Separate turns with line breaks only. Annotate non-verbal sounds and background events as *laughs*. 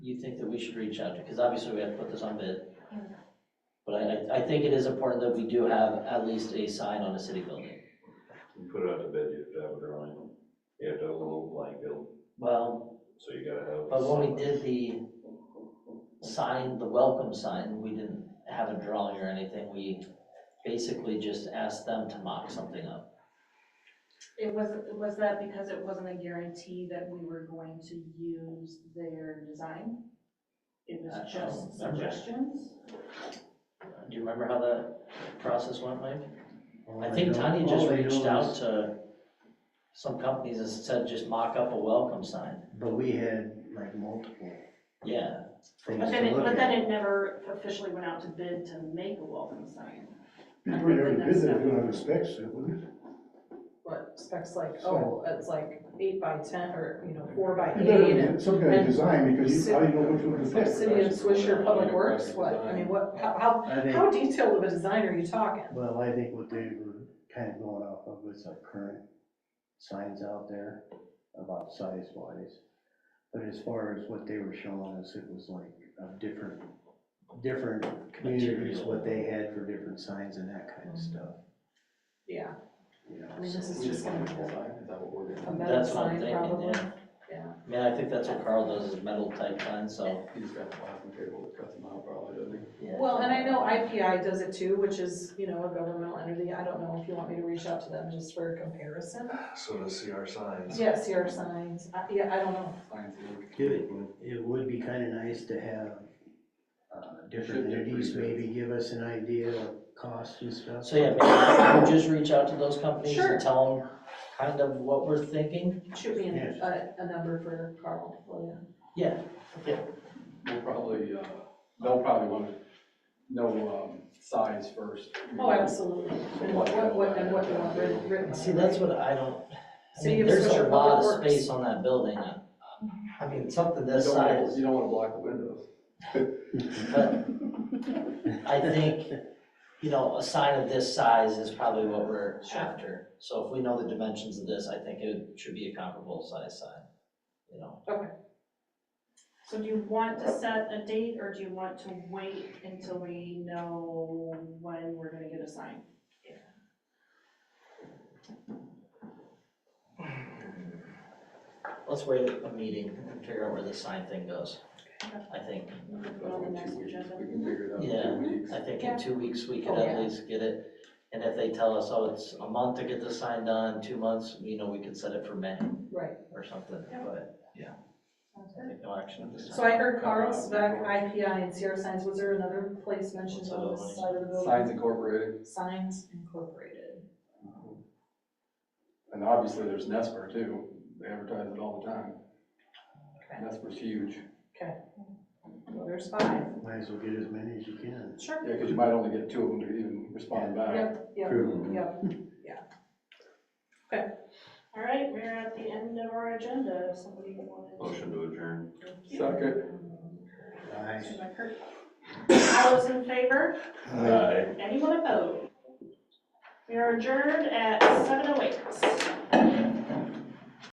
you think that we should reach out to? Because obviously we have to put this on bid. But I, I- I think it is important that we do have at least a sign on a city building.
You put it out to bed, you have to have a drawing, you have to have a little blank bill,
Well,
so you gotta have.
but when we did the sign, the welcome sign, we didn't have a drawing or anything. We basically just asked them to mock something up.
It was, was that because it wasn't a guarantee that we were going to use their design? It
I- I
Uh,
was
don't
just
oh,
remember.
suggestions?
Do you remember how that process went, Mike? I think Tanya just reached out to some companies and said, just mock up a welcome sign.
But we had like multiple
Yeah,
things
But
to
then, it-
look
but then
at.
it never officially went out to bid to make a welcome sign.
Before you ever did that, you don't have a spec set, wouldn't
what specs like,
Sure.
oh, it's like eight by ten or, you know, four by
*laughs*
it? You
eight
better,
and.
have some kind of design, because you, how do you know which one to
From
pick?
City of Swisher Public Works, what, I mean, what, how,
I
how,
think,
how detailed of a design are you talking?
well, I think what they were kind of going off of was our current signs out there about size wise. But as far as what they were showing us, it was like of different, different communities,
Material.
what they had for different signs and that kind of stuff,
Yeah,
you know.
I mean,
so-
this is just gonna be a metal
that's what I'm
sign
thinking,
probably.
yeah. I mean, I think that's what Carl does, is metal type signs, so,
He's got the plastic table that cuts them out probably, doesn't he?
yeah.
Well, and I know IPI does it too, which is, you know, a governmental entity, I don't know if you want me to reach out to them just for comparison.
So to see our signs.
Yeah, CR signs, I, yeah, I don't know,
Signs look
It, it would be kind of nice to have uh, different
Should be
entities
pretty good.
maybe give us an idea of costs and stuff.
So, yeah, maybe we just reach out to those companies
Sure.
and tell them kind of what we're thinking.
shoot me
Yes.
a, a number for Carl, Oh, will you?
Yeah,
We'll probably, uh, they'll probably want to know um, size first.
Oh, absolutely. And what, what, what, and what you want writ- written.
see, that's what I don't, I
So
mean,
you have
there's a
special
lot
public
of
works.
space on that building. uh, I mean, something
You
this
don't wanna-
size,
You don't want to block the windows.
but I think, you know, a sign of this size is probably what we're after. So if we know the dimensions of this, I think it should be a comparable size sign, you know?
So do you want to set a date or do you want to wait until we know when we're gonna get a sign?
Let's wait a meeting and figure out where the sign thing goes, I think.
We can
That's
put on the
what,
next
two weeks,
agenda.
we can figure it out
Yeah.
in two weeks.
I think
Yeah.
in two weeks, we could
Oh,
at
yeah.
least get it, and if they tell us, oh, it's a month to get the sign done, two months, you know, we could set it for May
Right.
or something,
Yeah.
but, yeah. I think no action at this time.
So I heard Carl, Spec, IPI, and CR Signs, was there another place mentioned
What's
on
another
this
one?
side of the building?
Signs Incorporated,
Signs Incorporated.
and obviously there's Nesper too, they advertise it all the time.
Okay.
Nesper's huge,
Well, there's five.
Might as well get as many as you can.
Sure.
yeah, because you might only get two of them to even respond back.
Yep, yep, yep.
All right, we're at the end of our agenda, if somebody wanted to.
Motion to adjourn.
Second.
Aye.
Motion by Kurt. All those in favor?
Uh,
Anyone opposed? We are adjourned at seven oh eight.